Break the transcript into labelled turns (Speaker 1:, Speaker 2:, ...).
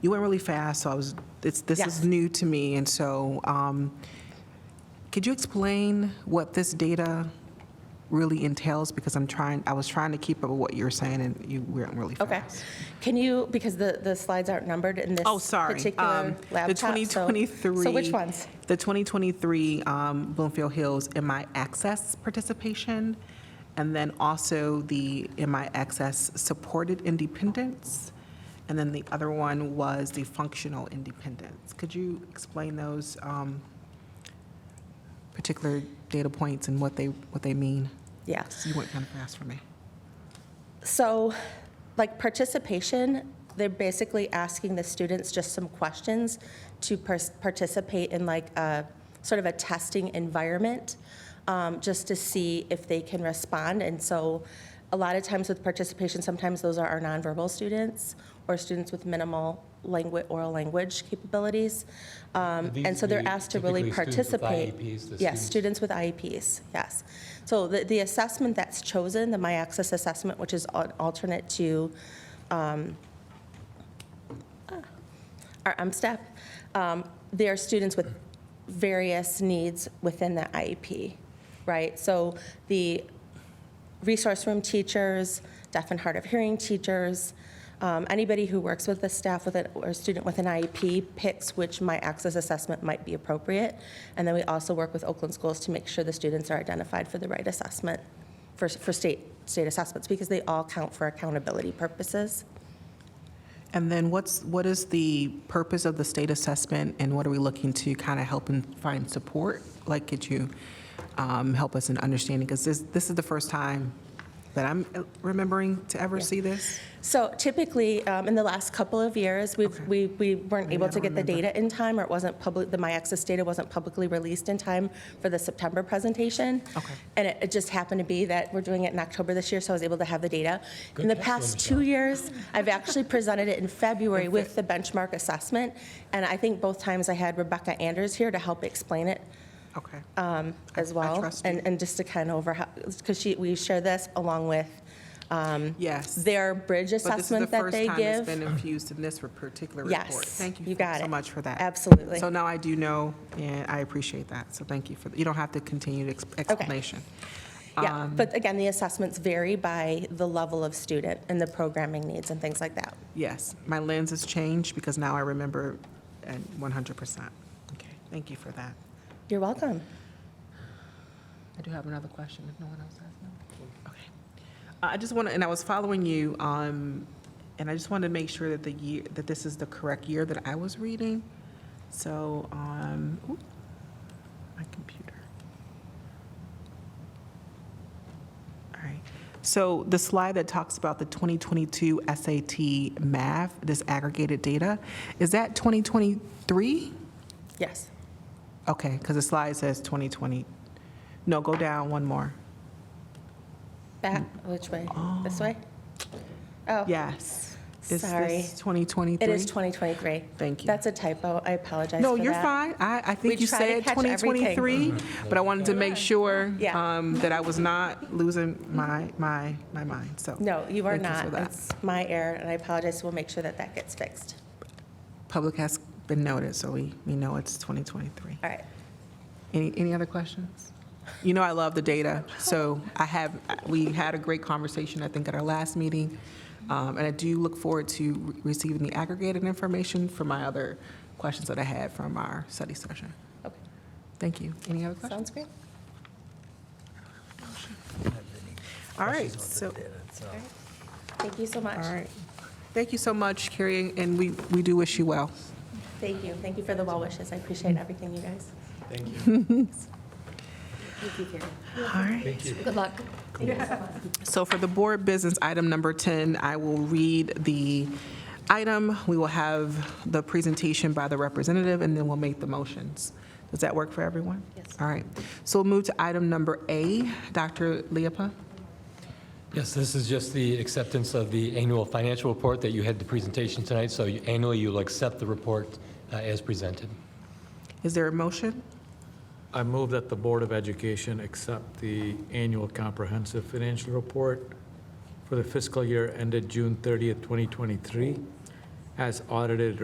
Speaker 1: you went really fast, so I was, it's, this
Speaker 2: Yes.
Speaker 1: is new to me, and so, um, could you explain what this data really entails? Because I'm trying, I was trying to keep up with what you were saying, and you went really fast.
Speaker 2: Okay. Can you, because the, the slides aren't numbered in this
Speaker 1: Oh, sorry.
Speaker 2: particular
Speaker 1: Um, The
Speaker 2: laptop. so-
Speaker 1: 2023.
Speaker 2: So which ones?
Speaker 1: The 2023 um, Bloomfield Hills MI Access participation, and then also the MI Access Supported Independence, and then the other one was the Functional Independence. Could you explain those um, particular data points and what they, what they mean?
Speaker 2: Yeah.
Speaker 1: You went kind of fast for me.
Speaker 2: So, like participation, they're basically asking the students just some questions to pers- participate in like a sort of a testing environment, um, just to see if they can respond. And so, a lot of times with participation, sometimes those are our nonverbal students or students with minimal language, oral language capabilities. Um,
Speaker 3: These
Speaker 2: and so they're
Speaker 3: would be
Speaker 2: asked to really
Speaker 3: typically students with
Speaker 2: participate.
Speaker 3: IEPs, the
Speaker 2: Yes,
Speaker 3: students-
Speaker 2: students with IEPs, yes. So the, the assessment that's chosen, the My Access assessment, which is an alternate to um, ah, our MSTEP, um, they are students with various needs within the IEP, right? So the resource room teachers, deaf and hard of hearing teachers, um, anybody who works with the staff with it or student with an IEP picks which my access assessment might be appropriate. And then we also work with Oakland schools to make sure the students are identified for the right assessment for, for state, state assessments because they all count for accountability purposes.
Speaker 1: And then what's, what is the purpose of the state assessment, and what are we looking to kind of help and find support? Like, could you um, help us in understanding, because this, this is the first time that I'm uh, remembering to ever see this?
Speaker 2: So typically, um, in the last couple of years, we've, we, we weren't able
Speaker 1: I
Speaker 2: to
Speaker 1: don't
Speaker 2: get the
Speaker 1: remember.
Speaker 2: data in time, or it wasn't public, the My Access data wasn't publicly released in time for the September presentation.
Speaker 1: Okay.
Speaker 2: And it, it just happened to be that we're doing it in October this year, so I was able to have the data. In the
Speaker 3: Good catch,
Speaker 2: past
Speaker 3: Michelle.
Speaker 2: two years, I've actually presented it in February with the benchmark assessment, and I think both times I had Rebecca Anders here to help explain it
Speaker 1: Okay.
Speaker 2: um, as
Speaker 1: I
Speaker 2: well.
Speaker 1: trust you.
Speaker 2: And, and just to kind of over, because she, we share this along with um,
Speaker 1: Yes.
Speaker 2: their bridge assessment that they
Speaker 1: But this is the first time it's
Speaker 2: give.
Speaker 1: been infused in this particular report.
Speaker 2: Yes,
Speaker 1: Thank you
Speaker 2: you
Speaker 1: for-
Speaker 2: got
Speaker 1: so
Speaker 2: it.
Speaker 1: much for that.
Speaker 2: Absolutely.
Speaker 1: So now I do know, and I appreciate that, so thank you for, you don't have to continue the ex- explanation.
Speaker 2: Yeah,
Speaker 1: Um,
Speaker 2: but again, the assessments vary by the level of student and the programming needs and things like that.
Speaker 1: Yes, my lens has changed because now I remember at 100%. Okay, thank you for that.
Speaker 2: You're welcome.
Speaker 1: I do have another question if no one else has no. Okay. Uh, I just want to, and I was following you, um, and I just wanted to make sure that the year, that this is the correct year that I was reading. So, um, ooh, my computer. All right. So the slide that talks about the 2022 SAT math, this aggregated data, is that 2023?
Speaker 2: Yes.
Speaker 1: Okay, because the slide says 2020. No, go down one more.
Speaker 2: Back, Mm. which way? This way? Oh,
Speaker 1: Yes. Is
Speaker 2: Sorry.
Speaker 1: this 2023?
Speaker 2: it is 2023.
Speaker 1: Thank you.
Speaker 2: That's a typo. I apologize
Speaker 1: No,
Speaker 2: for
Speaker 1: you're
Speaker 2: that.
Speaker 1: fine. I, I think
Speaker 2: We
Speaker 1: you
Speaker 2: try to
Speaker 1: said
Speaker 2: catch everything.
Speaker 1: 2023, but I wanted to make sure
Speaker 2: Yeah.
Speaker 1: um, that I was not losing my, my, my mind, so.
Speaker 2: No, you are
Speaker 1: thank for
Speaker 2: not.
Speaker 1: that.
Speaker 2: It's my error, and I apologize. We'll make sure that that gets fixed.
Speaker 1: Public has been noted, so we, we know it's 2023.
Speaker 2: All right.
Speaker 1: Any, any other questions? You know I love the data, so I have, we had a great conversation, I think, at our last meeting, um, and I do look forward to re- receiving the aggregated information for my other questions that I had from our study session.
Speaker 2: Okay.
Speaker 1: Thank you. Any other questions?
Speaker 2: Sounds great.
Speaker 1: All right, so,
Speaker 2: Thank you so much.
Speaker 1: all right. Thank you so much, Carrie, and we, we do wish you well.
Speaker 2: Thank you. Thank you for the well wishes. I appreciate everything, you guys.
Speaker 3: Thank you.
Speaker 2: Thank you, Carrie.
Speaker 1: All right.
Speaker 3: Thank you.
Speaker 4: Good luck.
Speaker 1: So for the board business, item number 10, I will read the item. We will have the presentation by the representative, and then we'll make the motions. Does that work for everyone? Yes. All right. So we'll move to item number A. Dr. Leapa?
Speaker 3: Yes, this is just the acceptance of the annual financial report that you had the presentation tonight. So you- annually, you'll accept the report uh, as presented.
Speaker 1: Is there a motion?
Speaker 5: I move that the Board of Education accept the annual comprehensive financial report for the fiscal year ended June 30th, 2023, as audited